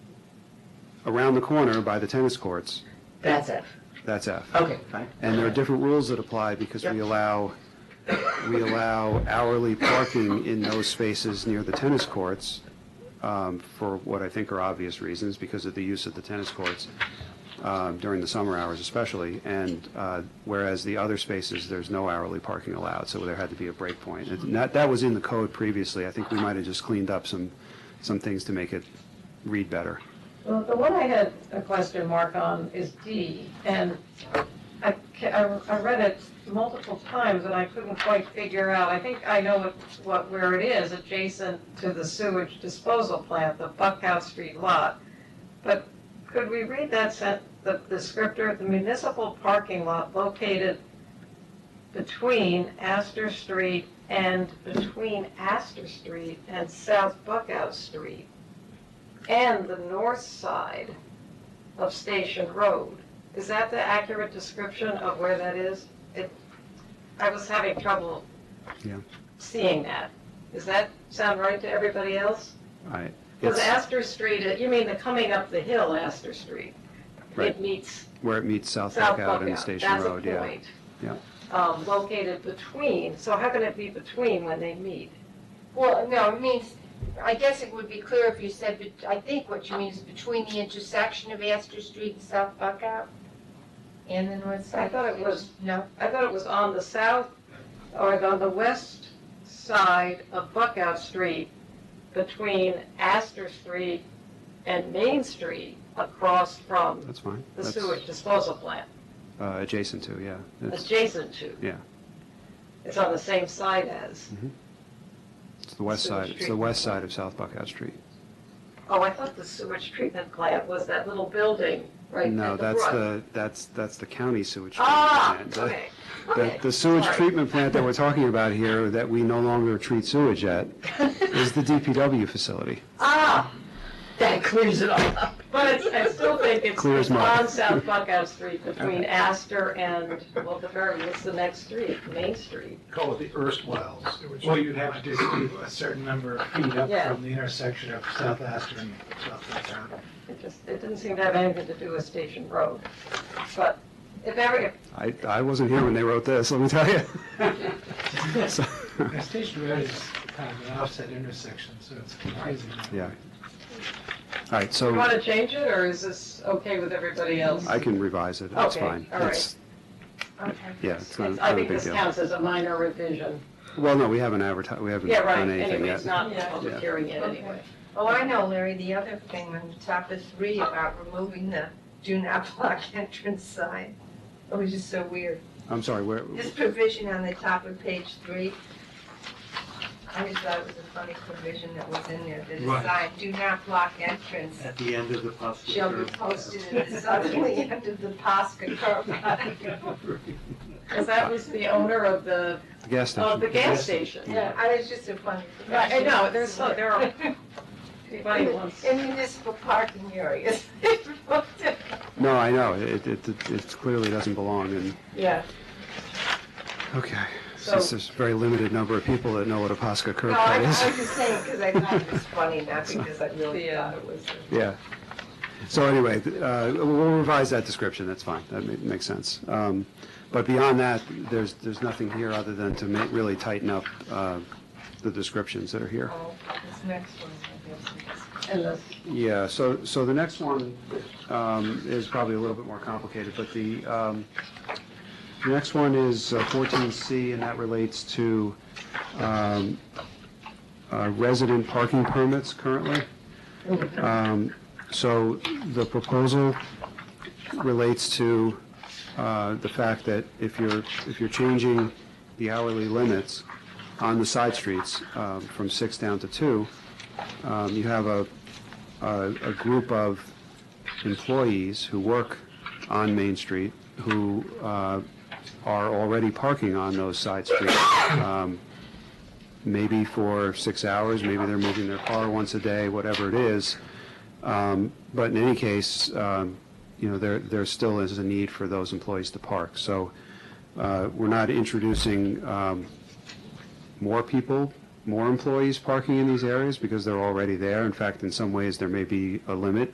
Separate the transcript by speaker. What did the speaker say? Speaker 1: around the corner by the tennis courts,
Speaker 2: That's it.
Speaker 1: that's F.
Speaker 2: Okay, fine.
Speaker 1: And there are different rules that apply because we
Speaker 2: Yep.
Speaker 1: allow, we allow hourly parking in those spaces near the tennis courts um, for what I think are obvious reasons, because of the use of the tennis courts um, during the summer hours especially. And uh, whereas the other spaces, there's no hourly parking allowed, so there had to be a break point. And that, that was in the code previously. I think we might have just cleaned up some, some things to make it read better.
Speaker 3: Well, the one I had a question mark on is D, and I, ca- I, I read it multiple times and I couldn't quite figure out, I think I know what, what, where it is, adjacent to the sewage disposal plant, the Buckhouse Street lot. But could we read that sent, the descriptor, the municipal parking lot located between Astor Street and between Astor Street and South Buckhouse Street? and the north side of Station Road. Is that the accurate description of where that is? It, I was having trouble
Speaker 1: Yeah.
Speaker 3: seeing that. Does that sound right to everybody else?
Speaker 1: I-
Speaker 3: Because
Speaker 1: it's
Speaker 3: Astor Street, uh, you mean the coming up the hill Astor Street?
Speaker 1: Right.
Speaker 3: It meets
Speaker 1: Where it meets South
Speaker 3: South
Speaker 1: Buckout
Speaker 3: Buckout.
Speaker 1: and Station Road, yeah.
Speaker 3: That's a point. Um, located between, so how can it be between when they meet?
Speaker 4: Well, no, it means, I guess it would be clear if you said, bet- I think what you mean is between the intersection of Astor Street and South Buckout and the north side.
Speaker 3: I thought it was-
Speaker 4: No,
Speaker 3: I thought it was on the south, or on the west side of Buckout Street, between Astor Street and Main Street, across from
Speaker 1: That's fine.
Speaker 3: the
Speaker 1: That's,
Speaker 3: sewage disposal plant,
Speaker 1: uh, Adjacent to, yeah. It's
Speaker 3: adjacent to.
Speaker 1: Yeah.
Speaker 3: It's on the same side as.
Speaker 1: it's the west
Speaker 3: Sewage
Speaker 1: side, it's the
Speaker 3: treatment
Speaker 1: west side of South Buckout Street.
Speaker 3: Oh, I thought the sewage treatment plant was that little building right at the
Speaker 1: No, that's
Speaker 3: brook.
Speaker 1: the, that's, that's the county sewage
Speaker 3: Ah,
Speaker 1: treatment plant.
Speaker 3: okay,
Speaker 1: The-
Speaker 3: okay.
Speaker 1: The sewage
Speaker 3: sorry.
Speaker 1: treatment plant that we're talking about here, that we no longer treat sewage at, is the DPW facility.
Speaker 3: Ah,
Speaker 2: That clears it all up.
Speaker 3: but it's, I still think it's
Speaker 1: Clear as
Speaker 3: it's
Speaker 1: mud.
Speaker 3: on South Buckout Street between Astor and, well, the very, what's the next street? Main Street.
Speaker 5: call it the erstwhile sewage.
Speaker 6: Well, you'd have to just do a certain number of feet up
Speaker 3: Yeah.
Speaker 6: from the intersection of South Astor and South Bucktown.
Speaker 3: It just, it didn't seem to have anything to do with Station Road. But if ever,
Speaker 1: I, I wasn't here when they wrote this, let me tell you. So-
Speaker 6: Now, Station Road is kind of an offset intersection, so it's confusing.
Speaker 1: Yeah. All right,
Speaker 3: if you want
Speaker 1: so
Speaker 3: to change it, or is this okay with everybody else?
Speaker 1: I can revise it, that's
Speaker 3: Okay,
Speaker 1: fine.
Speaker 3: all right.
Speaker 1: It's-
Speaker 4: okay.
Speaker 1: Yeah, it's not
Speaker 3: It's-
Speaker 1: not
Speaker 3: I
Speaker 1: a
Speaker 3: think
Speaker 1: big
Speaker 3: this
Speaker 1: deal.
Speaker 3: counts as a minor revision.
Speaker 1: Well, no, we haven't advertised, we haven't
Speaker 3: Yeah, right,
Speaker 1: done anything
Speaker 3: anyway, it's
Speaker 1: yet.
Speaker 3: not
Speaker 4: Yeah.
Speaker 3: public
Speaker 1: Yeah.
Speaker 3: hearing yet anyway.
Speaker 4: Oh, I know, Larry, the other thing on the top of three about removing the do not block entrance sign. It was just so weird.
Speaker 1: I'm sorry, where,
Speaker 4: This provision on the top of page three, I just thought it was a funny provision that was in there, that a
Speaker 5: Right.
Speaker 4: sign, do not block entrance
Speaker 5: At the end of the possible.
Speaker 4: shall be posted at the southerly end of the Posca curb.
Speaker 3: Because that was the owner of the,
Speaker 1: the gas
Speaker 3: of oh, the
Speaker 1: station?
Speaker 3: gas station.
Speaker 4: Yeah, I was just a funny.
Speaker 3: Right, I know, there's so- there are- Anybody
Speaker 4: In
Speaker 3: wants,
Speaker 4: in municipal parking areas.
Speaker 1: No, I know, it, it, it- it clearly doesn't belong in,
Speaker 3: yeah,
Speaker 1: okay.
Speaker 3: so,
Speaker 1: Since there's a very limited number of people that know what a Posca curb
Speaker 4: No, I I
Speaker 1: cut
Speaker 4: was
Speaker 1: is.
Speaker 4: just saying, because I thought it was funny, not because I really
Speaker 3: The, uh,
Speaker 4: thought it was.
Speaker 1: Yeah. So anyway, th- uh, we'll revise that description, that's fine, that ma- makes sense. Um, But beyond that, there's, there's nothing here other than to ma- really tighten up uh, the descriptions that are here.
Speaker 4: Oh, This next one, I guess.
Speaker 3: and the
Speaker 1: Yeah, so, so the next one um, is probably a little bit more complicated, but the, um, the next one is uh, 14C, and that relates to um, uh, resident parking permits currently. Um, So the proposal relates to uh, the fact that if you're, if you're changing the hourly limits on the side streets um, from six down to two, um, you have a, a a group of employees who work on Main Street who uh, are already parking on those side streets, um, maybe for six hours, maybe they're moving their car once a day, whatever it is. Um, But in any case, um, you know, there, there still is a need for those employees to park. So uh, we're not introducing um, more people, more employees parking in these areas because they're already there. In fact, in some ways, there may be a limit